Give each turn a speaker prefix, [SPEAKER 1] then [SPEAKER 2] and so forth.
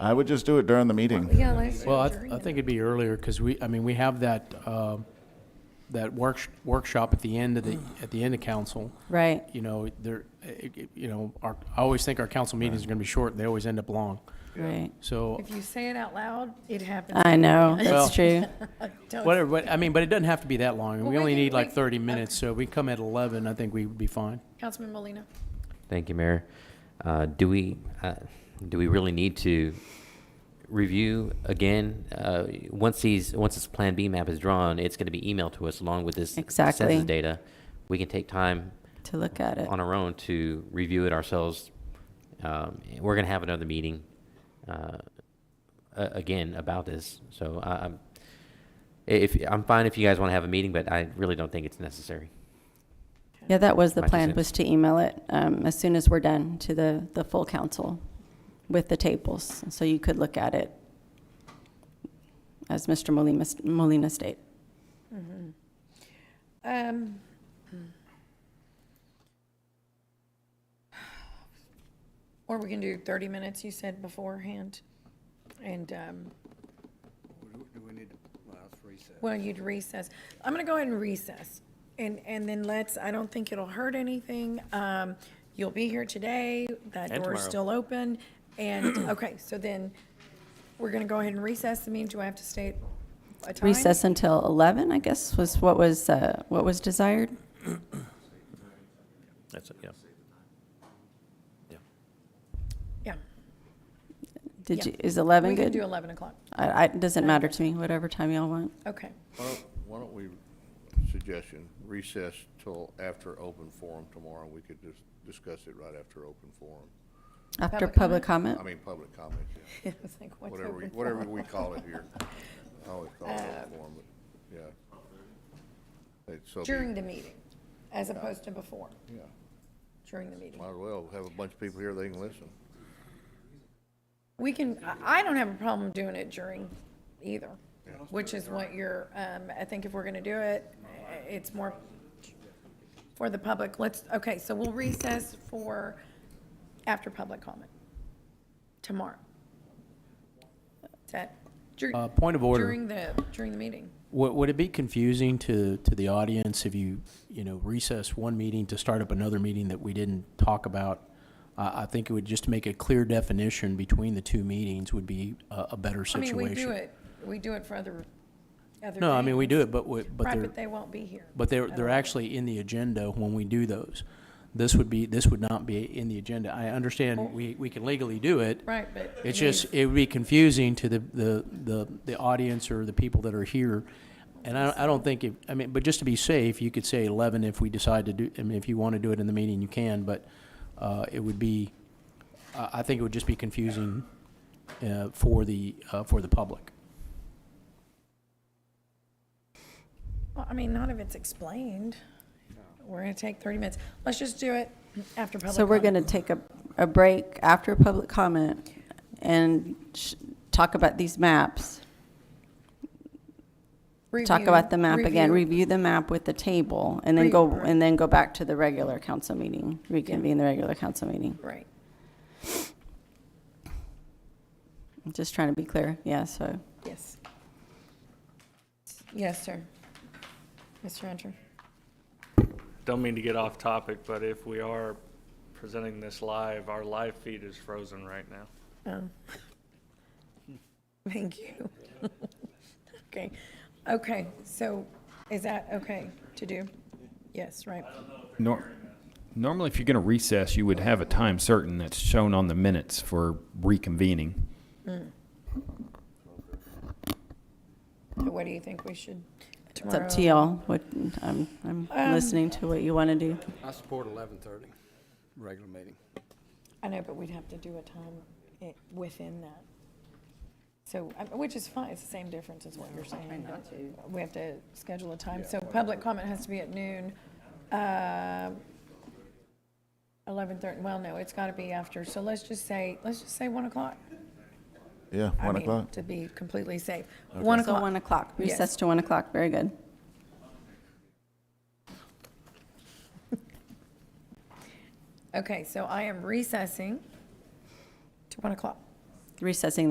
[SPEAKER 1] I would just do it during the meeting.
[SPEAKER 2] Yeah, let's.
[SPEAKER 3] Well, I, th- I think it'd be earlier, because we, I mean, we have that, uh, that work, workshop at the end of the,
[SPEAKER 2] Mm.
[SPEAKER 3] at the end of council.
[SPEAKER 4] Right.
[SPEAKER 3] You know, there, it- it- you know, our, I always think our council meetings are gonna be short, and they always end up long.
[SPEAKER 4] Right.
[SPEAKER 3] So,
[SPEAKER 2] If you say it out loud, it happens.
[SPEAKER 4] I know.
[SPEAKER 3] Well-
[SPEAKER 4] That's true.
[SPEAKER 2] Don't-
[SPEAKER 3] whatever, but, I mean, but it doesn't have to be that long, and
[SPEAKER 2] Well,
[SPEAKER 3] we
[SPEAKER 2] we
[SPEAKER 3] only
[SPEAKER 2] can-
[SPEAKER 3] need like
[SPEAKER 2] we-
[SPEAKER 3] thirty minutes, so if we come at eleven, I think we'd be fine.
[SPEAKER 2] Councilman Molina.
[SPEAKER 5] Thank you, Mayor. Uh, Do we, uh, do we really need to review again? Uh, Once these, once this Plan B map is drawn, it's going to be emailed to us along with this
[SPEAKER 4] Exactly.
[SPEAKER 5] census data. We can take time
[SPEAKER 4] To look at it.
[SPEAKER 5] on our own to review it ourselves. Um, We're going to have another meeting uh, a- again about this, so I- I'm, if, I'm fine if you guys want to have a meeting, but I really don't think it's necessary.
[SPEAKER 4] Yeah, that was the
[SPEAKER 5] Might be
[SPEAKER 4] plan,
[SPEAKER 5] sent.
[SPEAKER 4] was to email it um, as soon as we're done to the, the full council with the tables, so you could look at it, as Mr. Molina, Molina stated.
[SPEAKER 2] Um, Or we can do 30 minutes, you said beforehand. And, um,
[SPEAKER 6] Do we need to, last reset?
[SPEAKER 2] well, you'd recess. I'm going to go ahead and recess. And, and then let's, I don't think it'll hurt anything. Um, You'll be here today. That
[SPEAKER 7] And
[SPEAKER 2] door's
[SPEAKER 7] tomorrow.
[SPEAKER 2] still open. And, okay, so then we're going to go ahead and recess the meeting. Do I have to state a time?
[SPEAKER 4] Recess until 11, I guess, was what was, uh, what was desired?
[SPEAKER 7] That's it, yeah. Yeah.
[SPEAKER 2] Yeah.
[SPEAKER 4] Did
[SPEAKER 2] Yeah.
[SPEAKER 4] you, is 11
[SPEAKER 2] We can do
[SPEAKER 4] good?
[SPEAKER 2] 11 o'clock.
[SPEAKER 4] I, I, doesn't matter to me, whatever time y'all want.
[SPEAKER 2] Okay.
[SPEAKER 6] Why don't- why don't we, suggestion, recess till after open forum tomorrow, we could just discuss it right after open forum.
[SPEAKER 4] After
[SPEAKER 2] Public
[SPEAKER 4] public comment?
[SPEAKER 6] I mean, public comment, yeah,
[SPEAKER 2] It's like, what's
[SPEAKER 6] whatever, we-
[SPEAKER 2] open
[SPEAKER 6] whatever
[SPEAKER 2] forum? Uh,
[SPEAKER 6] we call it here. I always call it open forum, but, yeah. It's so,
[SPEAKER 2] During
[SPEAKER 6] be-
[SPEAKER 2] the meeting, as opposed to before,
[SPEAKER 6] yeah,
[SPEAKER 2] during the meeting.
[SPEAKER 6] might as well have a bunch of people here, they can listen.
[SPEAKER 2] We can, I I don't have a problem doing it during either, which is what you're, um, I think if we're going to do it, it's more for the public. Let's, okay, so we'll recess for after public comment tomorrow. Is that? dur-
[SPEAKER 3] Uh, point of order.
[SPEAKER 2] During the, during the meeting.
[SPEAKER 3] Would, would it be confusing to, to the audience if you, you know, recess one meeting to start up another meeting that we didn't talk about? I, I think it would just make a clear definition between the two meetings would be a, a better
[SPEAKER 2] I mean,
[SPEAKER 3] situation.
[SPEAKER 2] we do it, we do it for other, other.
[SPEAKER 3] No, I mean, we
[SPEAKER 2] things.
[SPEAKER 3] do it, but, we- but
[SPEAKER 2] Right,
[SPEAKER 3] they're,
[SPEAKER 2] but they won't be here.
[SPEAKER 3] but they're,
[SPEAKER 2] I
[SPEAKER 3] they're
[SPEAKER 2] don't-
[SPEAKER 3] actually in the agenda when we do those. This would be, this would not be in the agenda. I understand we, we can legally do it.
[SPEAKER 2] Right, but.
[SPEAKER 3] It's just, it would be confusing to the, the, the, the audience or the people that are here. And I, I don't think, it I mean, but just to be safe, you could say eleven if we decide to do, I mean, if you want to do it in the meeting, you can, but, uh, it would be, I, I think it would just be confusing, uh, for the, uh, for the public.
[SPEAKER 2] Well, I mean, not if it's explained. We're gonna take thirty minutes. Let's just do it after public.
[SPEAKER 4] So we're going to
[SPEAKER 2] comment.
[SPEAKER 4] take a, a break after public comment and sh- talk about these maps. Talk
[SPEAKER 2] Review-
[SPEAKER 4] about the map again, review the map with the table, and then
[SPEAKER 2] Re-
[SPEAKER 4] go,
[SPEAKER 2] right.
[SPEAKER 4] and then go back to the regular council meeting, reconvene the regular council meeting.
[SPEAKER 2] Right.
[SPEAKER 4] I'm Just trying to be clear, yeah, so.
[SPEAKER 2] Yes. Yes, sir. Mr. Hunter.
[SPEAKER 7] Don't mean to get off topic, but if we are presenting this live, our live feed is frozen right now.
[SPEAKER 2] Oh. Thank you. Okay, okay, so is that okay to do? Yes, right.
[SPEAKER 8] Nor- normally, if you're going to recess, you would have a time certain that's shown on the minutes for reconvening.
[SPEAKER 2] So what do you think we should
[SPEAKER 4] It's
[SPEAKER 2] tomorrow? Um,
[SPEAKER 4] up to y'all, what, I'm, I'm listening to what you want to do.
[SPEAKER 9] I support eleven thirty, regular meeting.
[SPEAKER 2] I know, but we'd have to do a time i- within that. So, I- which is fine, it's the same difference as what you're saying. We have to schedule a time, so public comment has to be at noon. Uh, Eleven thirty, well, no, it's got to be after, so let's just say, let's just say one o'clock.
[SPEAKER 1] Yeah,
[SPEAKER 2] I
[SPEAKER 1] 1
[SPEAKER 2] mean,
[SPEAKER 1] o'clock.
[SPEAKER 2] To be completely safe. One
[SPEAKER 4] So
[SPEAKER 2] o'clock,
[SPEAKER 4] one o'clock,
[SPEAKER 2] Yes.
[SPEAKER 4] recess to one o'clock, very good.
[SPEAKER 2] okay, so I am recessing to one o'clock.
[SPEAKER 4] Recessing the